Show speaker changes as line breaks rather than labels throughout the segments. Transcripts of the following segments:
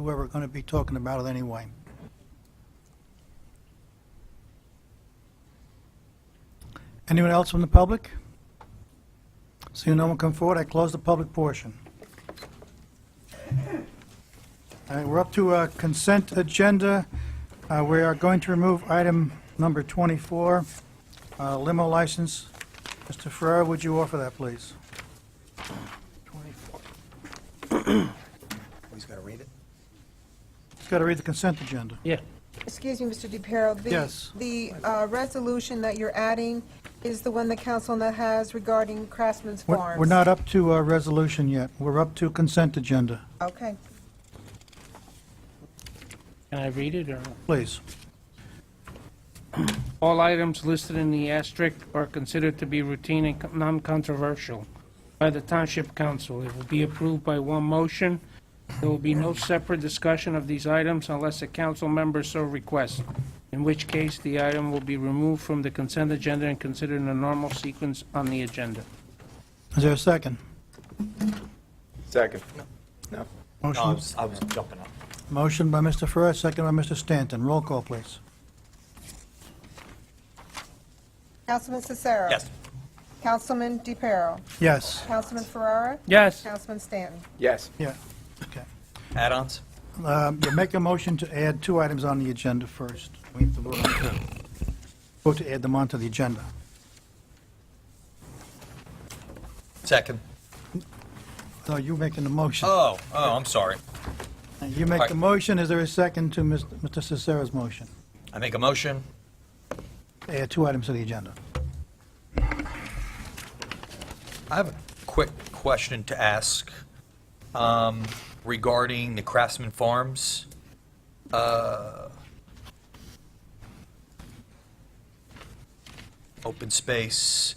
we were going to be talking about it anyway. Anyone else from the public? Seeing no one come forward, I close the public portion. All right, we're up to uh, consent agenda. Uh, We are going to remove item number 24, uh, limo license. Mr. Ferrer, would you offer that, please?
Oh, He's got to read it?
Just got to read the consent agenda.
Yeah.
Excuse me, Mr. DePiero. the-
Yes.
The uh, resolution that you're adding is the one the council now has regarding Craftsman's
We're
Farms.
we're not up to a resolution yet. We're up to consent agenda.
Okay.
Can I read it or?
Please.
All items listed in the asterisk are considered to be routine and co- non-controversial by the Township Council. It will be approved by one motion. There will be no separate discussion of these items unless a council member so requests, in which case the item will be removed from the consent agenda and considered in a normal sequence on the agenda.
Is there a second?
Second.
No, I
Motion,
was, I was jumping up.
motion by Mr. Ferrer, second by Mr. Stanton. Roll call, please.
Councilman Cicero.
Yes.
Councilman DePiero.
Yes.
Councilman Ferrara.
Yes,
Councilman Stanton.
Yes.
Yeah, okay.
Add-ons?
Um, You make a motion to add two items on the agenda first. We have to vote on two. Vote to add them onto the agenda.
Second.
No, you're making the motion.
Oh, oh, I'm sorry.
You make the motion, is there a second to Mr. Mr. Cicero's motion?
I make a motion.
Add two items to the agenda.
I have a quick question to ask um, regarding the Craftsman Farms. uh, Open space.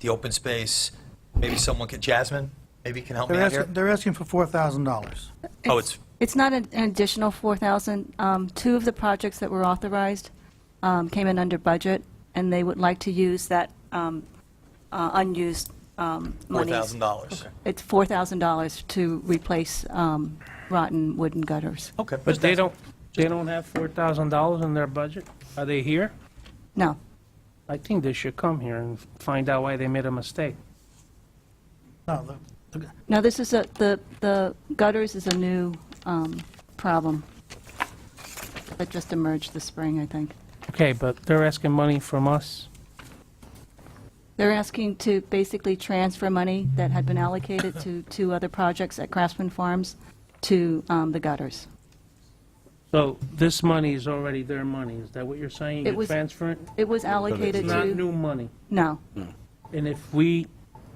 The open space, maybe someone could, Jasmine, maybe can help me
They're
out here?
asking, they're asking for $4,000.
Oh, it's,
It's not an an additional 4,000. Um, Two of the projects that were authorized um, came in under budget, and they would like to use that um, uh, unused um, monies.
$4,000.
It's $4,000 to replace um, rotten wooden gutters.
Okay.
but
just
they
ask-
don't, they don't have $4,000 in their budget? Are they here?
No.
I think they should come here and find out why they made a mistake.
No, the-
No, this is a, the, the gutters is a new um, problem that just emerged this spring, I think.
Okay, but they're asking money from us.
They're asking to basically transfer money that had been allocated to two other projects at Craftsman Farms to um, the gutters.
So this money is already their money, is that what you're saying?
It
You're
was-
transferring?
It was allocated
It's not
to,
new money.
no,
And if we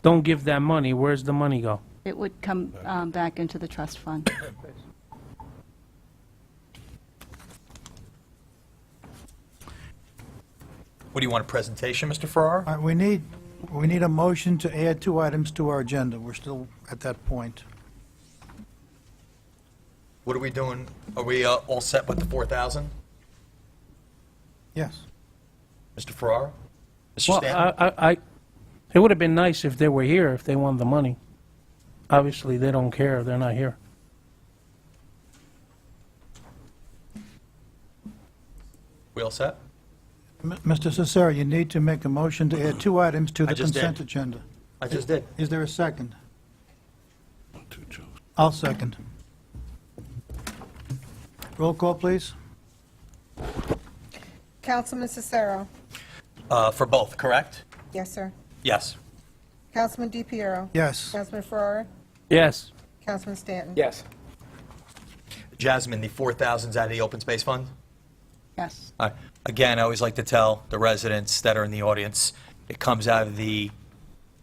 don't give that money, where's the money go?
it would come um, back into the trust fund.
What do you want, a presentation, Mr. Farrar?
All right, we need, we need a motion to add two items to our agenda. We're still at that point.
What are we doing? Are we uh, all set with the 4,000?
Yes.
Mr. Farrar? Mr.
Well, uh,
Stanton?
I, I, I- it would have been nice if they were here, if they wanted the money. Obviously, they don't care, they're not here.
We all set?
M- Mr. Cicero, you need to make a motion to add two items to
I
the
just did.
consent agenda.
I just did.
Is there a second? I'll second. Roll call, please.
Councilman Cicero.
Uh, For both, correct?
Yes, sir.
Yes.
Councilman DePiero.
Yes.
Councilman Ferrara.
Yes,
Councilman Stanton.
Yes.
Jasmine, the 4,000's out of the open space fund?
Yes.
Uh, Again, I always like to tell the residents that are in the audience, it comes out of the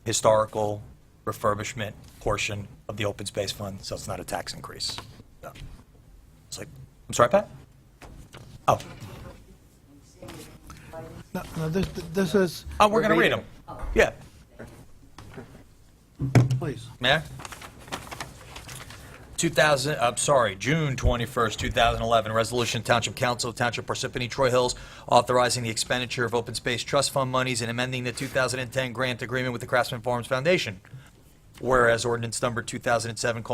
historical refurbishment portion of the open space fund, so it's not a tax increase. So, It's like, I'm sorry, Pat? Oh,
No, no, this, this is,
oh, we're going to read them. Yeah.
please.
Mayor? 2000, I'm sorry, June 21st, 2011, resolution Township Council of Township Parsippany Troy Hills authorizing the expenditure of open space trust fund monies and amending the 2010 grant agreement with the Craftsman Farms Foundation. Whereas ordinance number 2007: colon,